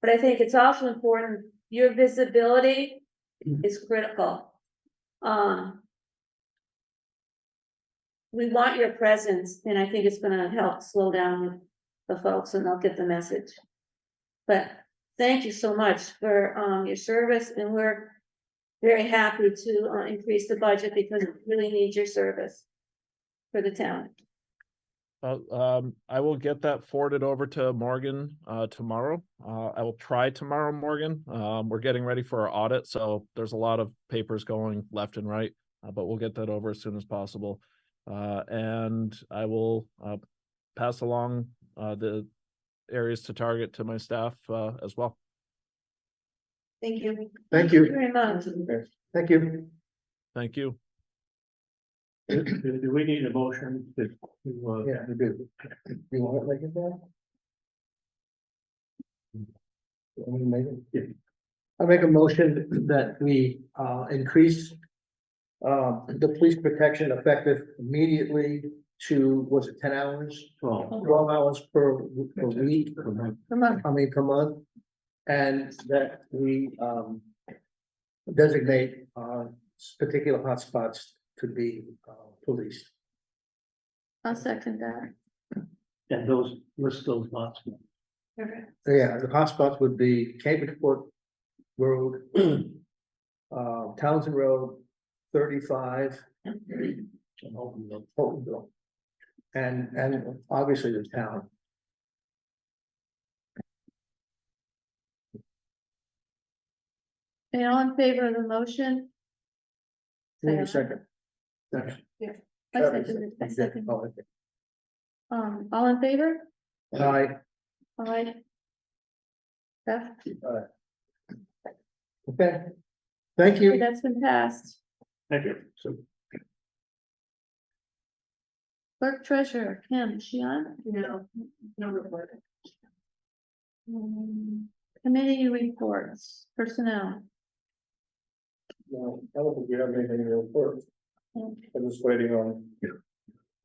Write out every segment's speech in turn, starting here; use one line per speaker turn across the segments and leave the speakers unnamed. But I think it's also important, your visibility is critical. Um. We want your presence, and I think it's gonna help slow down the folks and they'll get the message. But thank you so much for um your service and we're very happy to uh increase the budget because we really need your service for the town.
Uh, um, I will get that forwarded over to Morgan, uh, tomorrow. Uh, I will try tomorrow, Morgan. Um, we're getting ready for our audit, so there's a lot of papers going left and right, uh, but we'll get that over as soon as possible. Uh, and I will, uh, pass along, uh, the areas to target to my staff, uh, as well.
Thank you.
Thank you.
Very much.
Thank you.
Thank you.
Do, do we need a motion to, to, uh,
Yeah, we do. You want to make it there? Want me to make it? I make a motion that we uh increase. Uh, the police protection effective immediately to, was it ten hours?
well,
Twelve hours per per week,
Come on.
I mean, per month. And that we um. Designate uh particular hotspots to be uh policed.
I'll second that.
and those, list those lots.
So, Yeah, the hotspots would be Cambridgeport Road. Uh, Townsend Road, thirty-five,
and open them.
Holtonville. And, and obviously the town.
And all in favor of the motion?
Give me a
Say aye.
second. Second.
I second it, I second it.
Oh, okay.
Um, all in favor?
Aye.
Aye. That,
okay. Thank you.
that's been passed.
Thank you. So,
Clerk treasurer, Kim, is she on?
No, no report.
Um, Committee reports, personnel.
No, I don't think we have anything to report. I'm just waiting on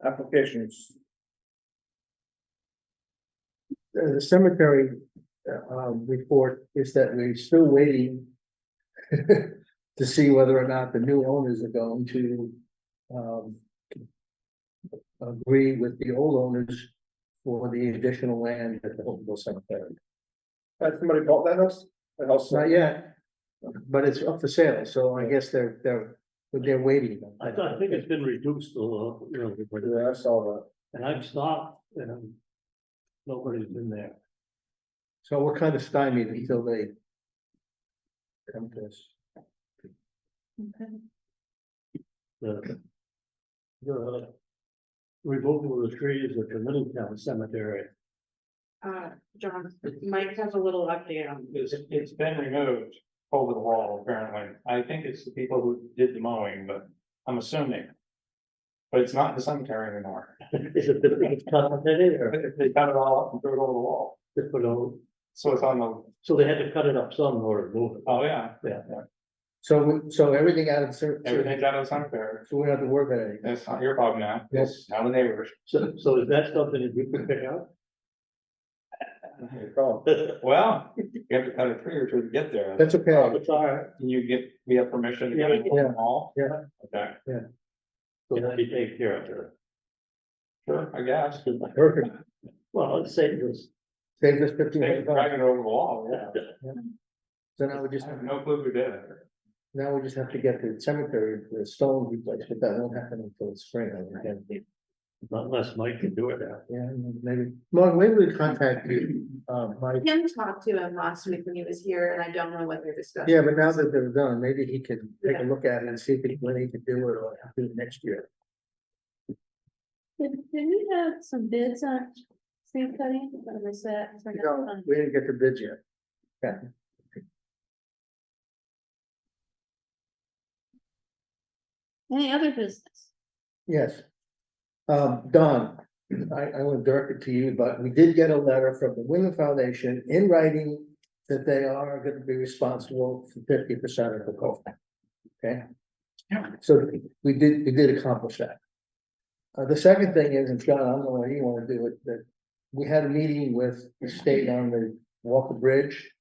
applications.
Uh, The cemetery, uh, um, report is that we're still waiting. To see whether or not the new owners are going to, um. Agree with the old owners for the additional land at the Hopewell Cemetery.
Has somebody bought that house? The house?
Not yet, but it's up for sale, so I guess they're, they're, they're waiting.
I thought, I think it's been reduced a little, you know, but-
Yeah, I saw
and I've stopped, and nobody's been there.
So we're kind of stymied until they. Come to us.
Okay.
the. The. Removal of the trees at the Middletown Cemetery.
Uh, John, Mike has a little update on
It's, it's been removed over the wall apparently. I think it's the people who did the mowing, but I'm assuming. But it's not in the cemetery anymore.
Is it the biggest company or
They cut it all up and threw it over the wall.
just below?
So it's on the,
So they had to cut it up some or remove it.
oh yeah,
So, we- so everything out of the cer- so
everything's out of the cemetery.
we don't have to work on anything.
It's not your problem now.
Yes.
Now the neighbors.
So, so is that something that you can pick up?
that. Oh,
Well, you have to cut a tree or two to get there.
That's okay.
It's all right.
Can you get, we have permission to
Yeah,
get it
yeah.
over the wall?
Yeah.
Okay,
So that'd be taken care of there.
sure, I guess.
Perfect.
Well, let's say this.
Save us fifteen
They
hundred
were
bucks.
dragging it over the wall, yeah.
So now we just,
I have no clue who did it.
now we just have to get the cemetery, the stone replaced, but that won't happen until spring. I would guess.
Unless Mike can do it now.
Yeah, maybe. Mark, maybe we contact you, uh, Mike.
Kim talked to him last week when he was here and I don't know what they're discussing.
Yeah, but now that they're done, maybe he can take a look at it and see if he, when he can do it or do it next year.
Did, did we have some bids on tree cutting, or was that?
You know, we didn't get the bid yet.
Any other business?
Yes. Um, Don, I, I would direct it to you, but we did get a letter from the Wyndham Foundation in writing that they are gonna be responsible for fifty percent of the cost. Okay? So we did, we did accomplish that. Uh, the second thing is, and John, I don't know whether you wanna do it, that we had a meeting with the state on the Walker Bridge.